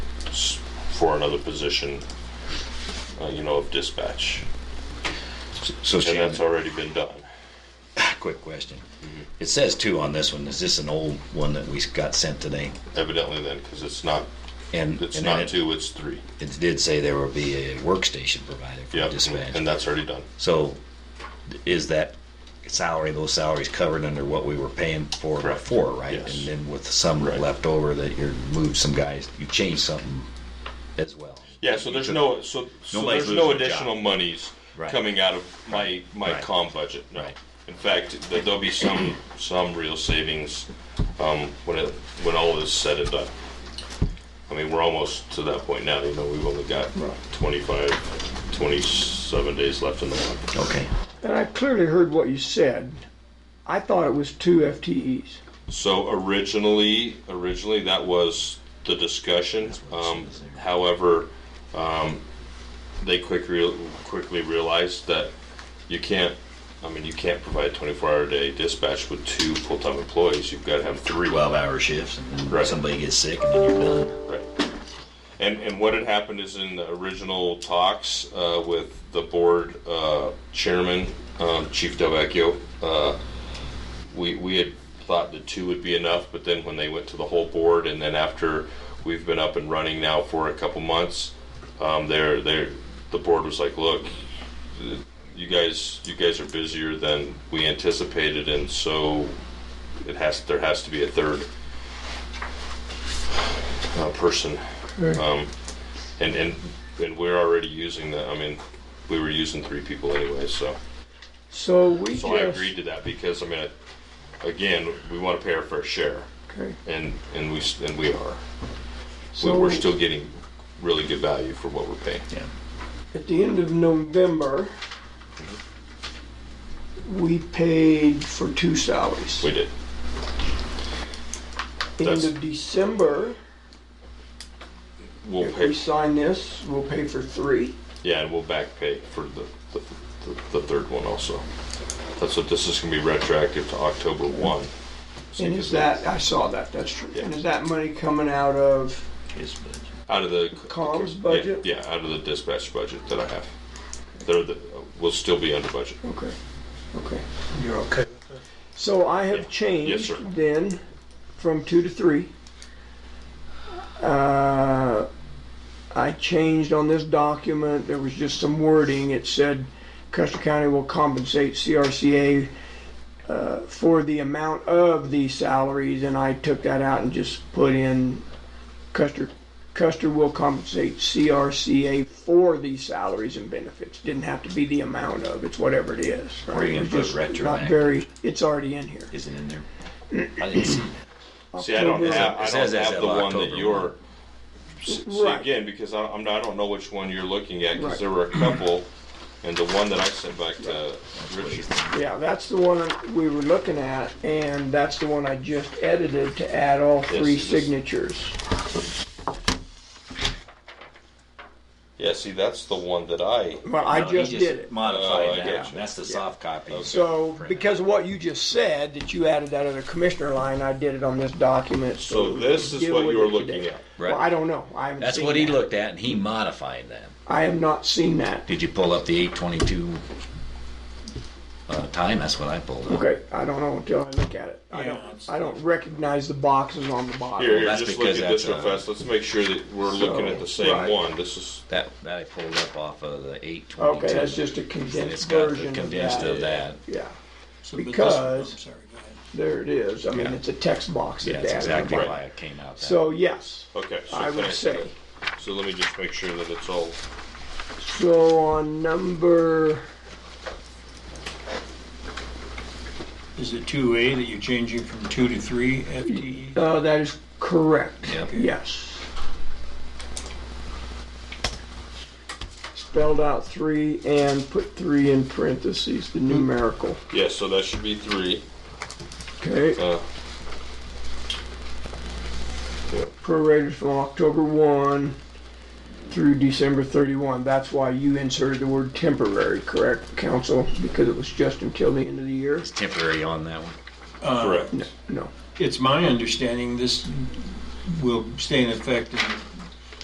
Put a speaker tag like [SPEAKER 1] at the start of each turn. [SPEAKER 1] for another position, uh, you know, of dispatch.
[SPEAKER 2] So
[SPEAKER 1] And
[SPEAKER 2] Shannon,
[SPEAKER 1] that's Mm-hmm. already been done.
[SPEAKER 2] quick question. It says two on this one. Is this an old one that we got sent today?
[SPEAKER 1] Evidently then, because it's not,
[SPEAKER 2] And
[SPEAKER 1] it's
[SPEAKER 2] and then
[SPEAKER 1] not
[SPEAKER 2] it-
[SPEAKER 1] two, it's three.
[SPEAKER 2] It did say there will be a workstation provided for
[SPEAKER 1] Yeah, and
[SPEAKER 2] dispatch.
[SPEAKER 1] that's already done.
[SPEAKER 2] So is that salary, those salaries covered under what we were paying for
[SPEAKER 1] Correct.
[SPEAKER 2] before, right?
[SPEAKER 1] Yes.
[SPEAKER 2] And then with some
[SPEAKER 1] Right.
[SPEAKER 2] left over that you moved some guys, you changed something as well.
[SPEAKER 1] Yeah, so there's no, so, so
[SPEAKER 2] Nobody's
[SPEAKER 1] there's no
[SPEAKER 2] losing their
[SPEAKER 1] additional monies
[SPEAKER 2] Right.
[SPEAKER 1] coming out of my, my
[SPEAKER 2] Right.
[SPEAKER 1] com budget, no.
[SPEAKER 2] Right.
[SPEAKER 1] In fact, th- there'll be some, some real savings, um, when it, when all is said and done. I mean, we're almost to that point now, you know, we've only got
[SPEAKER 2] Right.
[SPEAKER 1] 25, 27 days left in the month.
[SPEAKER 2] Okay.
[SPEAKER 3] And I clearly heard what you said. I thought it was two FTEs.
[SPEAKER 1] So originally, originally that was the discussion.
[SPEAKER 2] what it
[SPEAKER 1] Um,
[SPEAKER 2] says there.
[SPEAKER 1] however, um, they quick real quickly realized that you can't. I mean, you can't provide 24-hour day dispatch with two full-time employees. You've got to have three.
[SPEAKER 2] Twelve hour shifts and then
[SPEAKER 1] Right.
[SPEAKER 2] somebody gets sick and then you're done.
[SPEAKER 1] Right. And, and what had happened is in the original talks uh, with the board uh, chairman, um, Chief Delvecchio, uh, we, we had thought the two would be enough, but then when they went to the whole board, and then after we've been up and running now for a couple months, um, they're, they're, the board was like, look, you guys, you guys are busier than we anticipated, and so it has, there has to be a third uh, person. Um, and, and, and we're already using the, I mean, we were using three people anyway, so.
[SPEAKER 3] So we
[SPEAKER 1] So I
[SPEAKER 3] just,
[SPEAKER 1] agreed to that because, I mean, again, we want to pay our fair share
[SPEAKER 3] okay,
[SPEAKER 1] and, and we, s- and we are. We-
[SPEAKER 3] so
[SPEAKER 1] We're still getting really good value for what we're paying.
[SPEAKER 2] Yeah.
[SPEAKER 3] at the end of November, we paid for two salaries.
[SPEAKER 1] We did.
[SPEAKER 3] End
[SPEAKER 1] that's-
[SPEAKER 3] of December,
[SPEAKER 1] We'll
[SPEAKER 3] if we
[SPEAKER 1] pay,
[SPEAKER 3] sign this, we'll pay for three.
[SPEAKER 1] yeah, and we'll back pay for the, the, the- the third one also. That's what, this is gonna be retroactive to October one. So
[SPEAKER 3] And
[SPEAKER 1] you
[SPEAKER 3] is
[SPEAKER 1] can-
[SPEAKER 3] that, I saw that, that's true.
[SPEAKER 1] Yeah.
[SPEAKER 3] And is that money coming out of,
[SPEAKER 2] His budget.
[SPEAKER 1] Out of the
[SPEAKER 3] Comms
[SPEAKER 1] yeah,
[SPEAKER 3] budget?
[SPEAKER 1] Yeah, out of the dispatch budget that I have. They're the, we'll still be under budget.
[SPEAKER 3] okay, okay.
[SPEAKER 4] You're okay with that?
[SPEAKER 3] So I
[SPEAKER 1] Yeah.
[SPEAKER 3] have
[SPEAKER 1] Yes, sir.
[SPEAKER 3] changed then from two to three. Uh, I changed on this document, there was just some wording, it said Custer County will compensate CRCA uh, for the amount of the salaries, and I took that out and just put in Custer, Custer will compensate CRCA for the salaries and benefits. Didn't have to be the amount of, it's whatever it is. right?
[SPEAKER 2] Or you can
[SPEAKER 3] It's
[SPEAKER 2] put
[SPEAKER 3] just not
[SPEAKER 2] retroactive.
[SPEAKER 3] very- It's already in here.
[SPEAKER 2] Is it in there? I didn't see that.
[SPEAKER 1] See, I don't
[SPEAKER 3] October-
[SPEAKER 1] have, I
[SPEAKER 2] It
[SPEAKER 1] don't
[SPEAKER 2] says as
[SPEAKER 1] have
[SPEAKER 2] of
[SPEAKER 1] the one
[SPEAKER 2] October
[SPEAKER 1] that you're,
[SPEAKER 2] one.
[SPEAKER 1] see,
[SPEAKER 3] Right.
[SPEAKER 1] again, because I, I'm, not- I don't know which one you're looking at, because
[SPEAKER 3] Right.
[SPEAKER 1] there were a couple, and the one that I sent back to Richard.
[SPEAKER 3] Yeah, that's the one we were looking at, and that's the one I just edited to add all three
[SPEAKER 1] Yes, it is.
[SPEAKER 3] signatures.
[SPEAKER 1] Yeah, see, that's the one that I,
[SPEAKER 3] Well, I
[SPEAKER 2] No, he
[SPEAKER 3] just did it.
[SPEAKER 1] Oh, I
[SPEAKER 2] Modified
[SPEAKER 1] get
[SPEAKER 2] that.
[SPEAKER 1] you.
[SPEAKER 2] That's the soft copy.
[SPEAKER 3] So,
[SPEAKER 2] Print.
[SPEAKER 3] because of what you just said, that you added that other commissioner line, I did it on this document.
[SPEAKER 1] so this is
[SPEAKER 3] deal
[SPEAKER 1] what
[SPEAKER 3] with
[SPEAKER 1] you're
[SPEAKER 3] it
[SPEAKER 1] looking
[SPEAKER 3] today.
[SPEAKER 1] at.
[SPEAKER 3] Well, I don't know. I haven't
[SPEAKER 2] That's
[SPEAKER 3] seen
[SPEAKER 2] what he
[SPEAKER 3] that.
[SPEAKER 2] looked at and he modified that.
[SPEAKER 3] I have not seen that.
[SPEAKER 2] Did you pull up the eight twenty-two uh, time? That's what I pulled up.
[SPEAKER 3] Okay, I don't know until I look at it. I
[SPEAKER 4] Yeah,
[SPEAKER 3] don't,
[SPEAKER 4] it's-
[SPEAKER 3] I don't recognize the boxes on the bottom.
[SPEAKER 1] Here, here,
[SPEAKER 2] that's
[SPEAKER 1] just look at
[SPEAKER 2] because
[SPEAKER 1] this
[SPEAKER 2] that's uh,
[SPEAKER 1] real
[SPEAKER 2] a-
[SPEAKER 1] fast, let's make sure that we're looking at the
[SPEAKER 3] So,
[SPEAKER 1] same
[SPEAKER 3] right.
[SPEAKER 1] one, this is,
[SPEAKER 2] That, that I pulled up off of the eight twenty-two.
[SPEAKER 3] Okay, that's just a
[SPEAKER 2] And it's
[SPEAKER 3] condensed
[SPEAKER 2] got
[SPEAKER 3] version
[SPEAKER 2] the
[SPEAKER 3] of
[SPEAKER 2] condensed
[SPEAKER 3] that.
[SPEAKER 2] of that.
[SPEAKER 3] Yeah,
[SPEAKER 4] So, but this-
[SPEAKER 3] Because-
[SPEAKER 4] I'm sorry, go ahead.
[SPEAKER 3] there it is. I mean,
[SPEAKER 2] Yeah.
[SPEAKER 3] it's a text box.
[SPEAKER 2] Yeah,
[SPEAKER 3] that
[SPEAKER 2] that's
[SPEAKER 3] they added.
[SPEAKER 2] exactly
[SPEAKER 1] Right.
[SPEAKER 2] why it came out that.
[SPEAKER 3] So, yes.
[SPEAKER 1] okay. so
[SPEAKER 3] I would
[SPEAKER 1] thanks.
[SPEAKER 3] say.
[SPEAKER 1] So let me just make sure that it's all,
[SPEAKER 3] So on number,
[SPEAKER 4] Is it two A that you're changing from two to three E? FTE?
[SPEAKER 3] uh, that is correct.
[SPEAKER 2] Yep.
[SPEAKER 3] Yes. Spelled out three and put three in parentheses, the numerical.
[SPEAKER 1] yeah, so that should be three,
[SPEAKER 3] Okay,
[SPEAKER 1] uh,
[SPEAKER 3] prorated from October one through December thirty-one. That's why you inserted the word temporary, correct, council? Because it was just until the end of the year?
[SPEAKER 2] It's temporary on that one.
[SPEAKER 4] Uh,
[SPEAKER 1] correct.
[SPEAKER 3] No, no.
[SPEAKER 4] It's my understanding this will stay in effect in